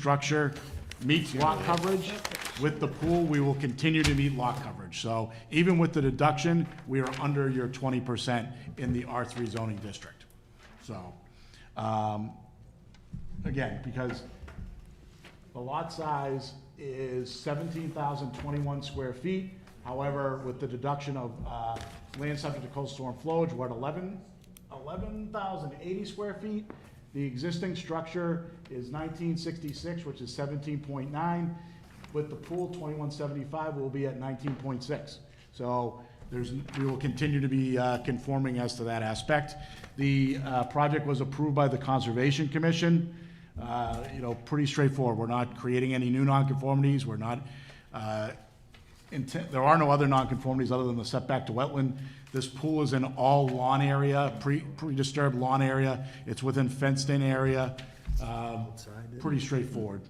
structure meets lot coverage. With the pool, we will continue to meet lot coverage. So even with the deduction, we are under your twenty percent in the R three zoning district. So, um, again, because the lot size is seventeen thousand twenty-one square feet. However, with the deduction of, uh, land subject to coastal storm flowage, we're at eleven, eleven thousand eighty square feet. The existing structure is nineteen sixty-six, which is seventeen point nine. With the pool, twenty-one seventy-five, we'll be at nineteen point six. So there's, we will continue to be uh, conforming as to that aspect. The uh, project was approved by the Conservation Commission. Uh, You know, pretty straightforward. We're not creating any new nonconformities. We're not, uh, intent, there are no other nonconformities other than the setback to wetland. This pool is in all lawn area, pre, pre-disturbed lawn area. It's within fenced-in area. Um, Pretty straightforward.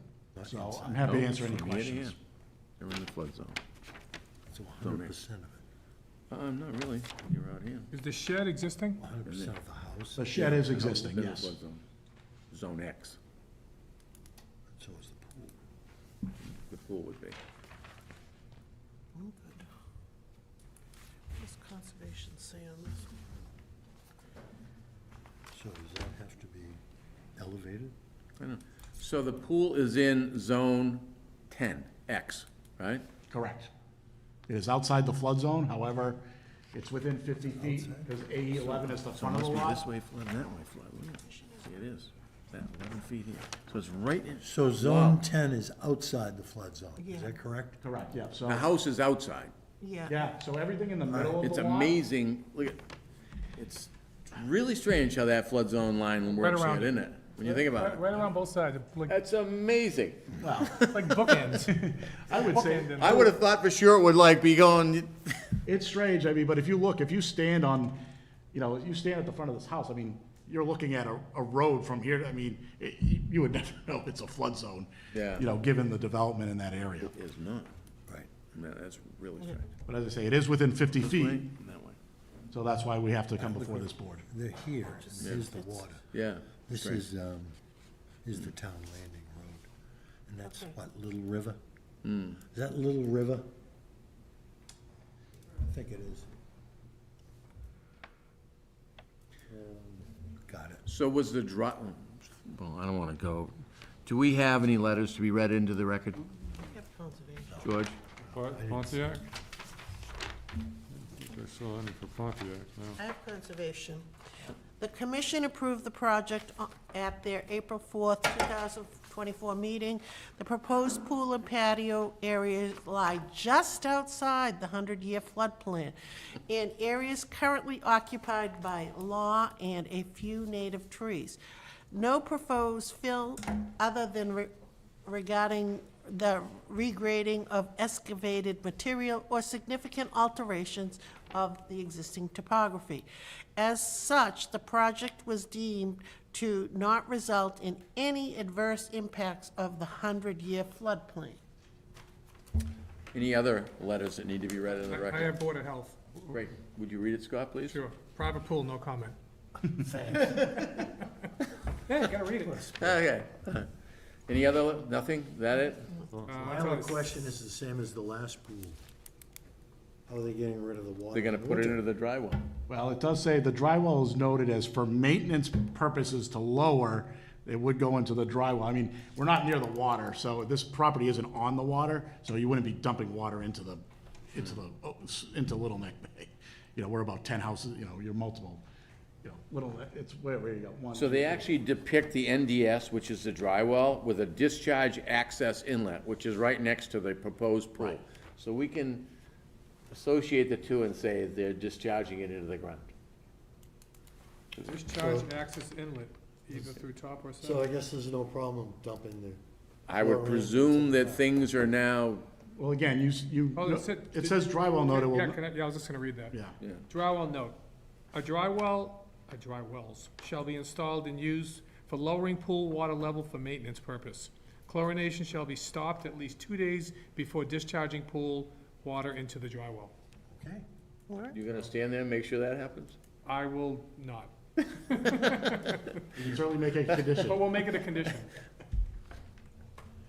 So I'm happy to answer any Oh, From here to questions. here. You're in the flood zone. It's hundred percent of it, Um, not really, you're out here. Is the shed existing? hundred percent of the house, The shed is existing, Been in yes. flood zone. Zone X, so is the pool. the pool would be. Oh, good. What does conservation say on this? So does that have to be elevated? I know. So the pool is in zone ten, X, right? Correct. It is outside the flood zone, however, it's within 50 feet, because AE 11 is the So it front of must the be this lot. way flood and that way flood, wouldn't it? See, it is, that eleven feet here. So it's right in, So zone ten is outside the flood zone, is that Yeah. correct? Correct, yeah, so, the house is outside. Yeah. yeah, so everything in the middle of It's the lot. amazing, look at, it's really strange how that flood zone line works around out, isn't it? When you think about it. Right around both sides, like, That's amazing. like bookends. I would say, I would have thought for sure it would like be going, it's strange, I mean, but if you look, if you stand on, you know, you stand at the front of this house, I mean, you're looking at a, a road from here, to- I mean, it- you you would never know it's a flood zone. Yeah. You know, given the development in that area. Is not. Right. No, that's really strange. But as I say, it is within 50 feet, Right? That way. so that's why we have to come before this board. They're here, and here's the water. Yeah. This right. is, um, is the town landing road, and that's Okay. what, Little River? Is that Little River? I think it is. Got it. So was the dri, well, I don't wanna go. Do we have any letters to be read into the record, We have conservation. George? Pon- Pontiac? I saw any for Pontiac, no. I have conservation. The commission approved the project o- at their April fourth, two thousand twenty-four meeting. The proposed pool and patio areas lie just outside the hundred-year flood plan in areas currently occupied by law and a few native trees. No proposed fill other than re- regarding the regrading of excavated material or significant alterations of the existing topography. As such, the project was deemed to not result in any adverse impacts of the 100-year floodplain. Any other letters that need to be read into the I record? have Board of Health, Great. Would you read it, Scott, please? sure. Private pool, no comment. Yeah, you gotta read it. Okay. Any other, le- nothing? Is that it? Uh, My that's all other it- question is the same as the last pool. How are they getting rid of the water? They're gonna in the put it winter? into the dry well. Well, it does say the drywall is noted as for maintenance purposes to lower, it would go into the drywall. I mean, we're not near the water, so this property isn't on the water, so you wouldn't be dumping water into the, into the, oh, s- into Little Neck Bay. You know, we're about ten houses, you know, you're multiple, you know, Little, Neck- it's where, where you got one. So they actually depict the NDS, which is the dry well, with a discharge access inlet, which is right next to the proposed pool. So we can associate the two and say they're discharging it into the ground. Discharge access inlet, either through top or So I side. guess there's no problem dumping the, I would presume that things are now, Well, again, you, s- you, Oh, it said- it says drywall noted, Yeah, will, can I- yeah, I was just gonna read that. yeah. yeah. Dry well note, a dry well, a dry wells shall be installed and used for lowering pool water level for maintenance purpose. Chlorination shall be stopped at least two days before discharging pool water into the dry well. okay? You're gonna stand there and make sure that happens? I will not, You can certainly make a but condition. we'll make it a condition.